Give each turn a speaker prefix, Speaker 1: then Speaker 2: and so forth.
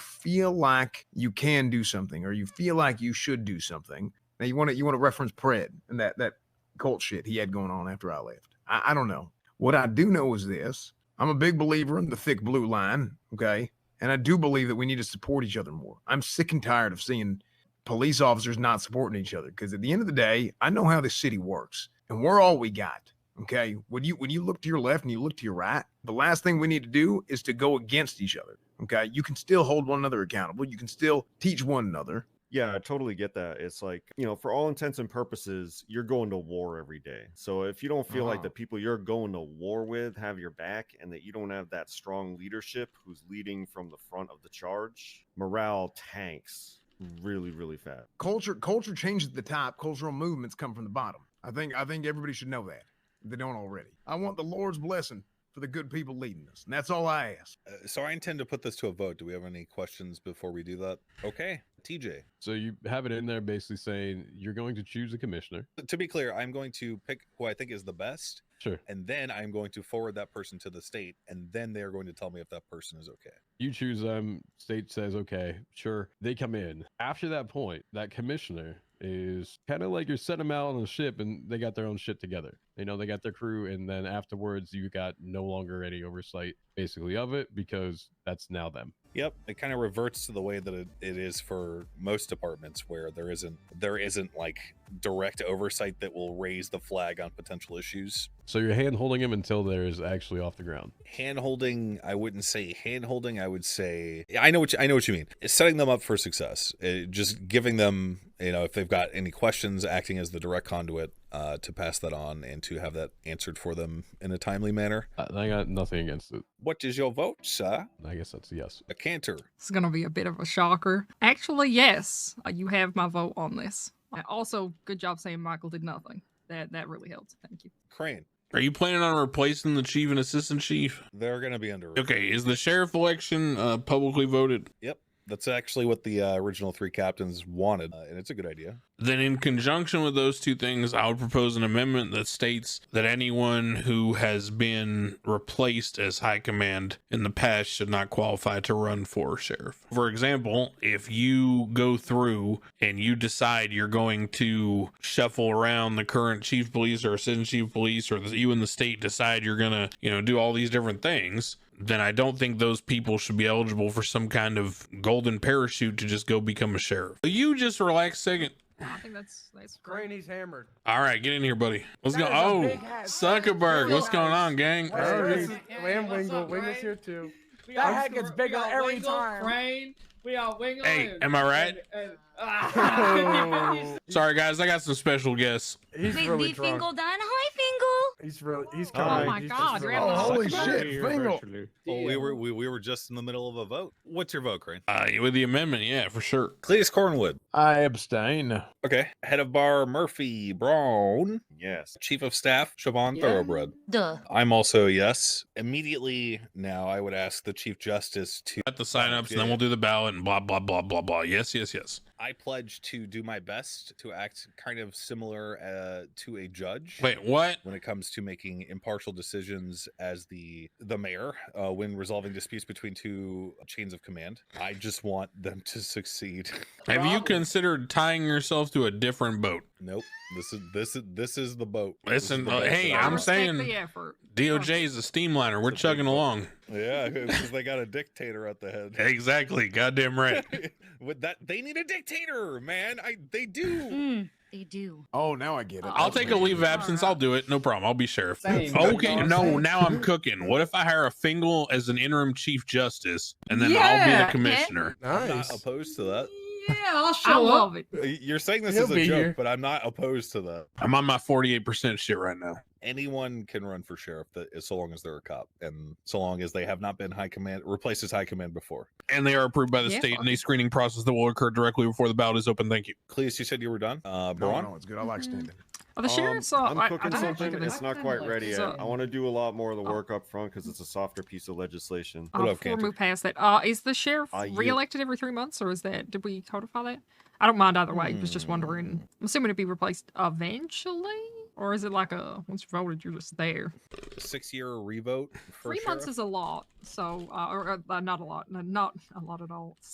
Speaker 1: feel like you can do something or you feel like you should do something. Now you want to you want to reference Pred and that that cult shit he had going on after I left. I, I don't know. What I do know is this: I'm a big believer in the thick blue line. Okay, and I do believe that we need to support each other more. I'm sick and tired of seeing police officers not supporting each other because at the end of the day, I know how this city works, and we're all we got. Okay. When you when you look to your left and you look to your right, the last thing we need to do is to go against each other. Okay. You can still hold one another accountable. You can still teach one another.
Speaker 2: Yeah, I totally get that. It's like, you know, for all intents and purposes, you're going to war every day. So if you don't feel like
Speaker 1: Uh-huh.
Speaker 2: the people you're going to war with have your back and that you don't have that strong leadership who's leading from the front of the charge, morale tanks really, really fast.
Speaker 1: Culture culture changes at the top. Cultural movements come from the bottom. I think I think everybody should know that. If they don't already. I want the Lord's blessing for the good people leading us, and that's all I ask.
Speaker 3: Uh, so I intend to put this to a vote. Do we have any questions before we do that? Okay, TJ.
Speaker 4: So you have it in there basically saying you're going to choose a commissioner.
Speaker 3: To be clear, I'm going to pick who I think is the best,
Speaker 4: Sure.
Speaker 3: and then I'm going to forward that person to the state, and then they are going to tell me if that person is okay.
Speaker 4: You choose them. State says, okay, sure. They come in. After that point, that commissioner is kind of like you're setting them out on a ship and they got their own shit together. You know, they got their crew. And then afterwards, you got no longer any oversight basically of it because that's now them.
Speaker 3: Yep, it kind of reverts to the way that it, it is for most departments, where there isn't there isn't like direct oversight that will raise the flag on potential issues.
Speaker 4: So you're hand holding them until there is actually off the ground.
Speaker 3: hand holding i wouldn't say hand holding i would say i know what you, i know what you mean it's setting them up for success Uh just giving them you know if they've got any questions acting as the direct conduit uh, to pass that on and to have that answered for them in a timely manner
Speaker 4: I I got nothing against it.
Speaker 3: what is your vote sir
Speaker 4: I guess that's a yes.
Speaker 3: a canter
Speaker 5: It's going to be a bit of a shocker. Actually, yes, uh, you have my vote on this. Uh, Also, good job saying Michael did nothing. That that really helped. Thank you.
Speaker 3: crane
Speaker 6: Are you planning on replacing the chief and assistant chief?
Speaker 3: they're gonna be under
Speaker 6: Okay, is the sheriff election uh, publicly voted?
Speaker 3: that's actually what the uh, original three captains wanted uh, and it's a good idea
Speaker 6: Then, in conjunction with those two things, I would propose an amendment that states that anyone who has been replaced as high command in the past should not qualify to run for sheriff. For example, if you go through and you decide you're going to shuffle around the current chief of police or assistant chief of police, or that you and the state decide you're going to, you know, do all these different things, then I don't think those people should be eligible for some kind of golden parachute to just go become a sheriff. You just relax a second.
Speaker 5: I think that's that's great.
Speaker 7: Granny's hammered.
Speaker 6: All right, get in here, buddy. What's
Speaker 7: That
Speaker 6: going?
Speaker 7: is a
Speaker 6: Oh,
Speaker 7: big house.
Speaker 6: Zuckerberg,
Speaker 7: Big
Speaker 6: what's going
Speaker 7: house.
Speaker 6: on, gang?
Speaker 7: What's
Speaker 6: All
Speaker 7: up,
Speaker 6: right.
Speaker 7: Reese?
Speaker 8: Hey, what's up, Ray?
Speaker 7: too.
Speaker 8: We
Speaker 7: That
Speaker 8: are
Speaker 7: head gets
Speaker 8: Stra-
Speaker 7: bigger
Speaker 8: we are
Speaker 7: every
Speaker 8: Wingle,
Speaker 7: time.
Speaker 8: Crane, we are Wingle.
Speaker 6: Hey,
Speaker 8: and-
Speaker 6: am I right?
Speaker 8: and- and- ah.
Speaker 6: Sorry, guys, I got some special guests.
Speaker 7: He's
Speaker 9: Big
Speaker 7: really
Speaker 9: B
Speaker 7: drunk.
Speaker 9: Fingal done. Hi,
Speaker 7: He's really. He's
Speaker 4: Oh
Speaker 7: coming.
Speaker 4: my
Speaker 7: He's just
Speaker 5: God,
Speaker 7: really-
Speaker 5: Oh, Grandma.
Speaker 1: holy
Speaker 7: Suck
Speaker 1: shit,
Speaker 7: it.
Speaker 1: Fingal.
Speaker 3: well, Oh, we were we, we were just in the middle of a vote what's your vote crane
Speaker 6: Uh, with the amendment, yeah, for sure.
Speaker 3: cletus cornwood
Speaker 4: I abstain.
Speaker 3: okay head of bar murphy brown
Speaker 2: Yes.
Speaker 3: Chief of Staff Siobhan
Speaker 8: Yeah.
Speaker 3: Thoroughbred.
Speaker 9: Duh.
Speaker 3: I'm also a yes. Immediately now, I would ask the Chief Justice to.
Speaker 6: Got the signups, and then we'll do the ballot and blah blah blah blah blah. Yes, yes, yes.
Speaker 3: I pledge to do my best to act kind of similar uh, to a judge.
Speaker 6: Wait, what?
Speaker 3: When it comes to making impartial decisions as the the mayor uh, when resolving disputes between two chains of command, I just want them to succeed.
Speaker 6: Have you
Speaker 8: Problem.
Speaker 6: considered tying yourself to a different boat?
Speaker 3: nope this is this is this is the boat. This is
Speaker 6: Listen,
Speaker 3: the
Speaker 6: uh,
Speaker 3: boat
Speaker 6: hey,
Speaker 3: that I
Speaker 5: I
Speaker 6: I'm
Speaker 3: want.
Speaker 5: respect
Speaker 6: saying-
Speaker 5: the effort.
Speaker 6: DOJ is a steamliner. We're
Speaker 3: It's a big
Speaker 6: chugging
Speaker 3: boat.
Speaker 6: along.
Speaker 3: yeah, because they got a dictator at the head.
Speaker 6: Exactly. Goddamn right.
Speaker 3: With that, they need a dictator, man. I they do.
Speaker 9: Mm, they do.
Speaker 1: Oh, now I get it.
Speaker 6: I'll take a leave of absence. I'll do it. No problem. I'll be sheriff.
Speaker 8: Same,
Speaker 6: Okay,
Speaker 8: dog,
Speaker 6: no,
Speaker 8: same.
Speaker 6: now I'm cooking. What if I hire a Fingal as an interim chief justice and then I'll be
Speaker 5: Yeah,
Speaker 6: the
Speaker 5: yeah.
Speaker 6: commissioner?
Speaker 3: I'm not
Speaker 7: Nice.
Speaker 3: opposed to that.
Speaker 8: yeah, I'll
Speaker 5: I
Speaker 8: show up.
Speaker 5: love it.
Speaker 3: Y- You're saying this
Speaker 7: He'll
Speaker 3: is a
Speaker 7: be
Speaker 3: joke,
Speaker 7: here.
Speaker 3: but I'm not opposed to that.
Speaker 6: I'm on my 48% shit right now.
Speaker 3: Anyone can run for sheriff that is so long as they're a cop and so long as they have not been high command replaced as high command before.
Speaker 6: And they are approved by the
Speaker 5: Yeah.
Speaker 6: state in a screening process that will occur directly before the ballot is open. Thank you.
Speaker 3: Cleus, you said you were done. Uh
Speaker 1: No,
Speaker 3: Braun?
Speaker 1: no, it's good. I like
Speaker 9: Mhm.
Speaker 1: standing.
Speaker 5: Oh, the
Speaker 2: Um,
Speaker 5: sheriff's. uh, I- I
Speaker 2: I'm cooking
Speaker 5: didn't think
Speaker 2: something.
Speaker 5: of
Speaker 2: It's
Speaker 5: this.
Speaker 2: not quite ready yet.
Speaker 5: So-
Speaker 2: I want to do a lot more of the
Speaker 5: Oh.
Speaker 2: work up front because it's a softer piece of legislation.
Speaker 5: Uh,
Speaker 3: What up,
Speaker 5: before we
Speaker 3: Cantor?
Speaker 5: move past that, uh, is the sheriff
Speaker 2: Uh, you-
Speaker 5: reelected every three months, or is that did we codify that? I don't mind either way. I Was just
Speaker 3: Hmm.
Speaker 5: wondering. I'm assuming it'd be replaced eventually, or is it like a once you voted, you're just there?
Speaker 3: Six year revote. For
Speaker 5: three months
Speaker 3: sheriff?
Speaker 5: is a lot, so uh, or, uh, not a lot, no, not a lot at all.